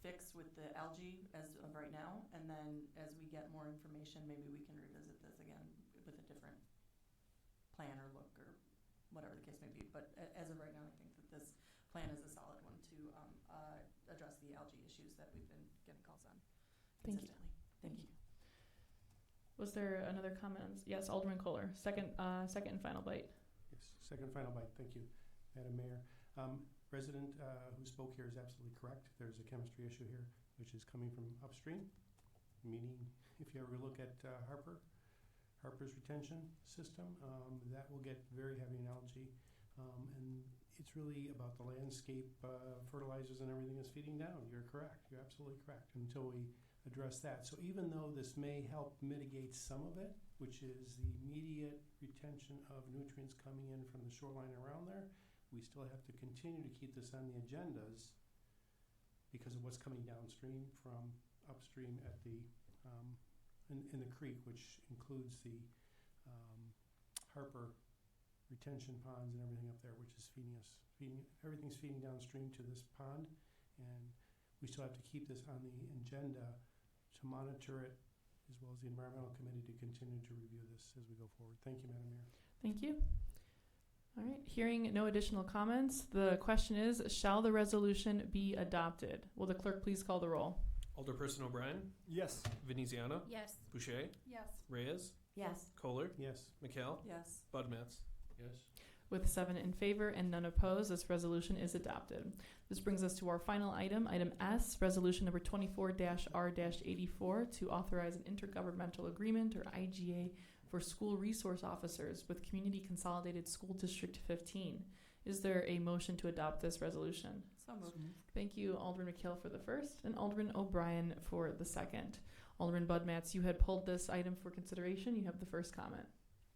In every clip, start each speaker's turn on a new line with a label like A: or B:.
A: fixed with the algae as of right now, and then as we get more information, maybe we can revisit this again with a different plan or look or whatever the case may be. But a- as of right now, I think that this plan is a solid one to um, uh, address the algae issues that we've been getting calls on
B: Thank you.
A: consistently.
B: Thank you. Was there another comment? on s- Yes, Alderman Kohler, second, uh, second and final bite.
C: Yes, second and final bite, thank you, Madam Mayor. Um, Resident uh, who spoke here is absolutely correct. There's a chemistry issue here, which is coming from upstream, meaning if you ever look at uh, Harper, Harper's retention system, um, that will get very heavy in algae. Um, And it's really about the landscape uh, fertilizers and everything is feeding down. You're correct, you're absolutely correct, until we address that. So even though this may help mitigate some of it, which is the immediate retention of nutrients coming in from the shoreline around there, we still have to continue to keep this on the agendas because of what's coming downstream from upstream at the, um, in, in the creek, which includes the, um, Harper retention ponds and everything up there, which is feeding us, feeding, everything's feeding downstream to this pond. And we still have to keep this on the agenda to monitor it, as well as the environmental committee to continue to review this as we go forward. Thank you, Madam Mayor.
B: Thank you. All right, hearing no additional comments, the question is, shall the resolution be adopted? Will the clerk please call the roll?
D: Alderperson O'Brien. Yes. Veneziano.
E: Yes.
D: Boucher.
A: Yes.
D: Reyes.
E: Yes.
D: Kohler.
C: Yes,
A: Oh,
D: McHale.
A: Yes.
D: Budmats. Yes.
B: With seven in favor and none opposed, this resolution is adopted. This brings us to our final item, item S, resolution number twenty-four R eighty-four to authorize an intergovernmental agreement or IGA for school resource officers with Community Consolidated School District fifteen. Is there a motion to adopt this resolution?
A: So moved.
B: Thank you, Alderman McHale for the first and Alderman O'Brien for the second. Alderman Bud Matts, you had pulled this item for consideration. You have the first comment.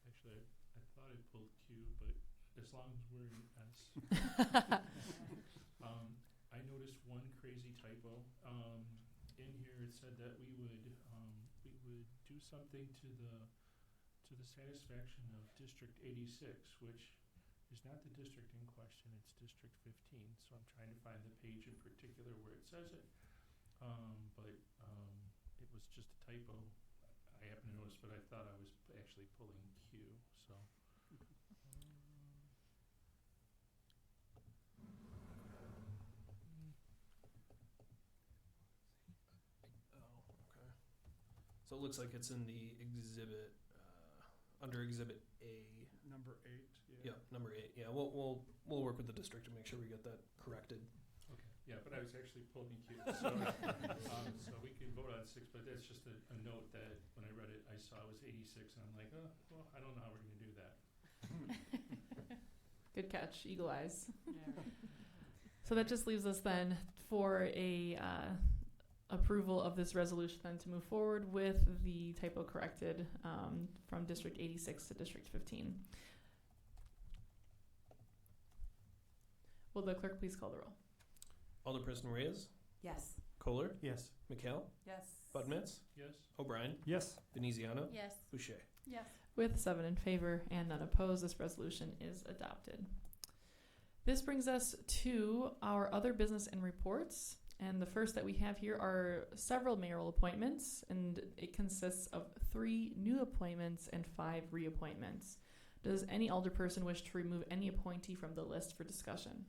F: Actually, I, I thought I pulled Q, but as long as we're in S. Um, I noticed one crazy typo. Um, in here it said that we would, um, we would do something to the, to the satisfaction of District eighty-six, which is not the district in question, it's District fifteen, so I'm trying to find the page in particular where it says it. Um, but, um, it was just a typo. I happen to notice, but I thought I was p- actually pulling Q, so.
D: Oh, okay. So it looks like it's in the exhibit, uh, under Exhibit A.
F: Number eight,
D: Yep, number eight. Yeah, we'll we'll we'll work with the district to make sure we get that corrected.
F: Okay, yeah, but I was actually pulling Q, so, um, so we can vote on six, but that's just a, a note that when I read it, I saw it was eighty-six, and I'm like, oh, well, I don't know how we're gonna do that.
B: Good catch, eagle eyes.
A: Yeah.
B: So that just leaves us then for a uh, approval of this resolution then to move forward with the typo corrected um, from District 86 to District 15. Will the clerk please call the roll?
D: Alderperson Reyes.
E: Yes.
D: Kohler.
C: yes.
D: McHale.
A: Yes.
D: Budmats.
F: Yes?
D: O'Brien.
C: Yes.
D: Veneziano.
E: Yes.
D: Boucher.
A: Yes.
B: With seven in favor and none opposed, this resolution is adopted. This brings us to our other business and reports. And the first that we have here are several mayoral appointments, and it consists of three new appointments and five reappointments. Does any alderperson wish to remove any appointee from the list for discussion?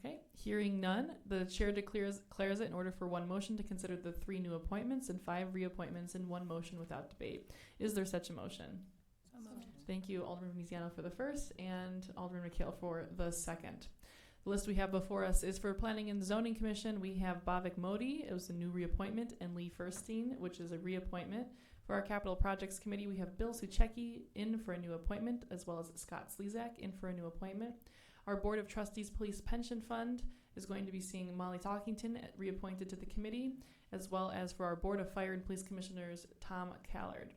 B: Okay, hearing none, the chair declares, declares it in order for one motion to consider the three new appointments and five reappointments in one motion without debate. Is there such a motion?
E: So moved.
B: Thank you, Alderman Veneziano, for the first, and Alderman McHale for the second. The list we have before us is for Planning and Zoning Commission. We have Bavik Modi, it was a new reappointment, and Lee Furstein, which is a reappointment. For our Capital Projects Committee, we have Bill Suchecki in for a new appointment, as well as Scott Slezak in for a new appointment. Our Board of Trustees Police Pension Fund is going to be seeing Molly Talkington eh, reappointed to the committee, as well as for our Board of Fire and Police Commissioners, Tom Callard.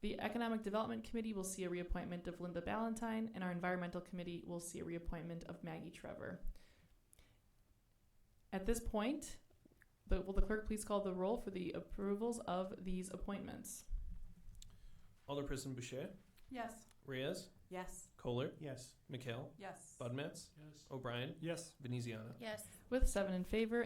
B: The Economic Development Committee will see a reappointment of Linda Ballantyne, and our Environmental Committee will see a reappointment of Maggie Trevor. At this point, the, will the clerk please call the roll for the approvals of these appointments?
D: Alderperson Boucher.
A: Yes.
D: Reyes.
E: Yes.
D: Kohler.
C: Yes.
D: McHale.
A: Yes.
D: Budmats.
F: Yes.
D: O'Brien.
F: Yes.
D: Veneziano.
E: Yes.
B: With seven in favor